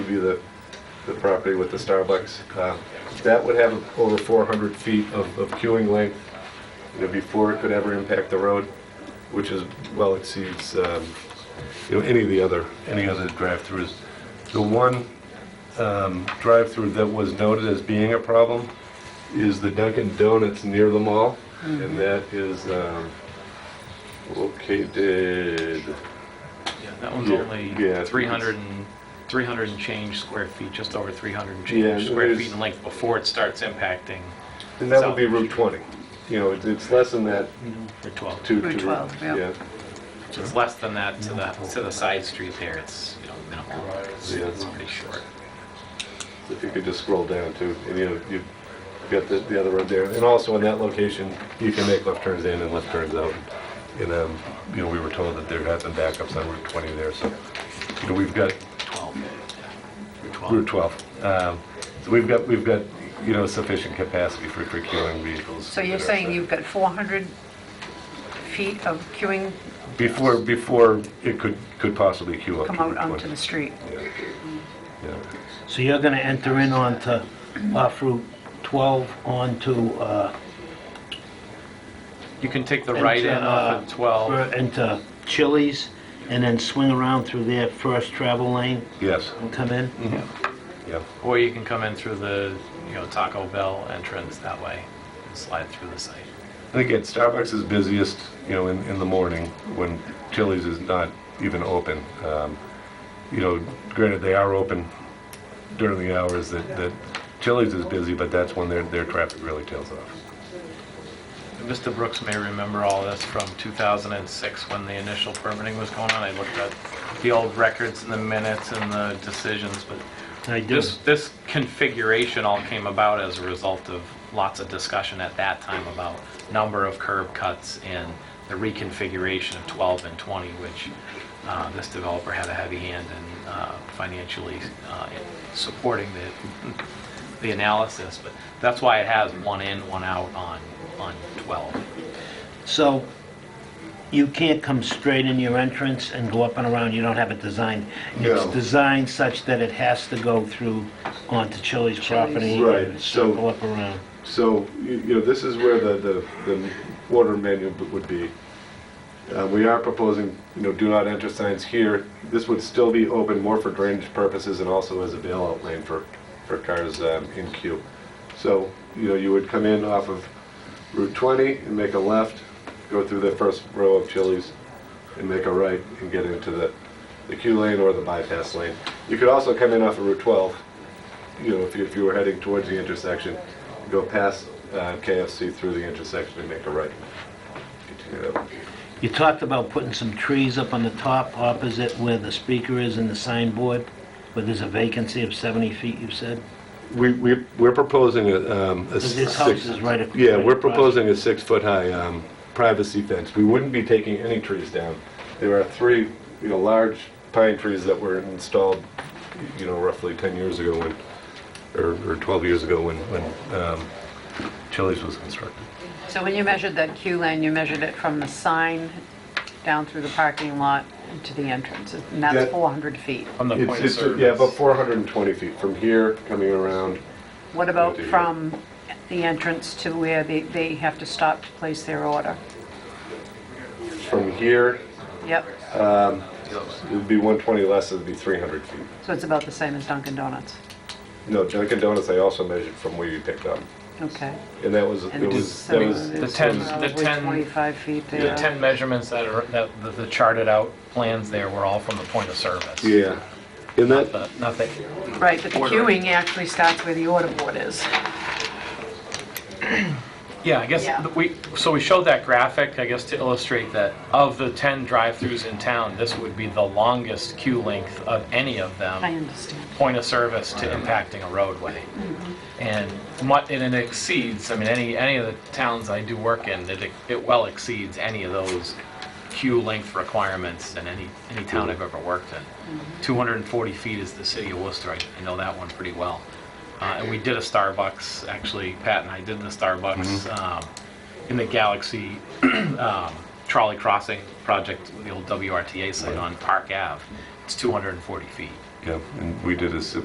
you the, the property with the Starbucks. Uh, That would have over 400 feet of of queuing length, you know, before it could ever impact the road, which is, well exceeds, um, you know, any of the other, any other drive-throughs. The one um, drive-through that was noted as being a problem is the Dunkin' Donuts near the mall, and that is um, located, Yeah, that one's Yeah, yeah, only it's- 300 and, 300 and change square feet, just over 300 Yeah, and change and square there's- feet in length before it starts impacting and that would be Route 20. You know, it's- it's less than that Route 12. to... Route to- 12, yeah. It's less than that to the, to the side street there, it's, you know, minimal. It's Yeah. it's pretty short. If you could just scroll down to, and you know, you've got the, the other road there. And also in that location, you can make left turns in and left turns out. And, um, you know, we were told that there had been backups on Route 20 there, so, you know, we've got 12, Route 12. Route 12. Um, So we've got, we've got, you know, sufficient capacity for for queuing vehicles. So you're that are- saying you've got 400 feet of queuing Before, before it could, could possibly queue up to come Route out 20. onto the street? Yeah. So you're going to enter in onto, off Route 12 onto, uh, You can take the right in Into, off uh, of 12. for- into Chili's and then swing around through their first travel lane Yes, and come in? Mm-hmm. yeah. Or you can come in through the, you know, Taco Bell entrance that way and slide through the site. And again, Starbucks is busiest, you know, in, in the morning when Chili's is not even open. Um, You know, granted, they are open during the hours that, that Chili's is busy, but that's when their, their traffic really tails off. Mr. Brooks may remember all this from 2006, when the initial permitting was going on. I looked at the old records and the minutes and the decisions, but I do. this, this configuration all came about as a result of lots of discussion at that time about number of curb cuts and the reconfiguration of 12 and 20, which uh, this developer had a heavy hand in uh, financially uh, in supporting the, the analysis. But that's why it has one in, one out on, on 12. So you can't come straight in your entrance and go up and around, you don't have it designed? It's No. designed such that it has to go through onto Chili's property? Right, and so- Circle up around. So, you you know, this is where the, the, the order menu b- would be. Uh, we are proposing, you know, do not enter signs here. This would still be open more for drainage purposes and also as a bailout lane for, for cars um, in queue. So, you know, you would come in off of Route 20 and make a left, go through the first row of Chili's and make a right and get into the, the queue lane or the bypass lane. You could also come in off of Route 12 you know, if you, if you were heading towards the intersection, go past uh, KFC through the intersection and make a right. Continue that. You talked about putting some trees up on the top opposite where the speaker is and the signboard, where there's a vacancy of 70 feet, you said? We, we, we're proposing a, um, a Because six. this house is right ac- Yeah, right we're across. proposing a six-foot-high, um, privacy fence. We wouldn't be taking any trees down. There are three, you know, large pine trees that were installed, you know, roughly ten years ago when, or, or twelve years ago when, when, um, Chili's was constructed. So when you measured that queue lane, you measured it from the sign down through the parking lot to the entrance, and Yeah. that's 400 feet. From the It's, point of it's, yeah, about service. four hundred and twenty feet from here, coming around, What about Yeah, they- from the entrance to where they, they have to stop to place their order? from here Yep, It would be 120 less, it would be 300 feet. so it's about the same as Dunkin' Donuts. No, Dunkin' Donuts, I also measured from where you picked up. Okay. And that was, it And was, that so was, The it's 10 the probably 10 25 feet The there. 10 measurements that are, that the- the charted out plans there were all from the point of service. yeah. And that, But Nothing, Right, but the ordering. queuing actually starts where the order board is. yeah, I guess, Yeah. th- we, so we showed that graphic, I guess, to illustrate that of the 10 drive-throughs in town, this would be the longest queue length of any of I them, understand. point of service to impacting a roadway. And mu- and it exceeds, I mean, any, any of the towns I do work in, it, it well exceeds any of those queue length requirements in any, any town I've ever worked in. 240 feet is the city of Worcester, I I know that one pretty well. Uh, And we did a Starbucks, actually, Pat and I did the Starbucks um, in the Galaxy um, Trolley Crossing project, the old WRTA site on Park Ave. It's 240 feet. yeah, and we did a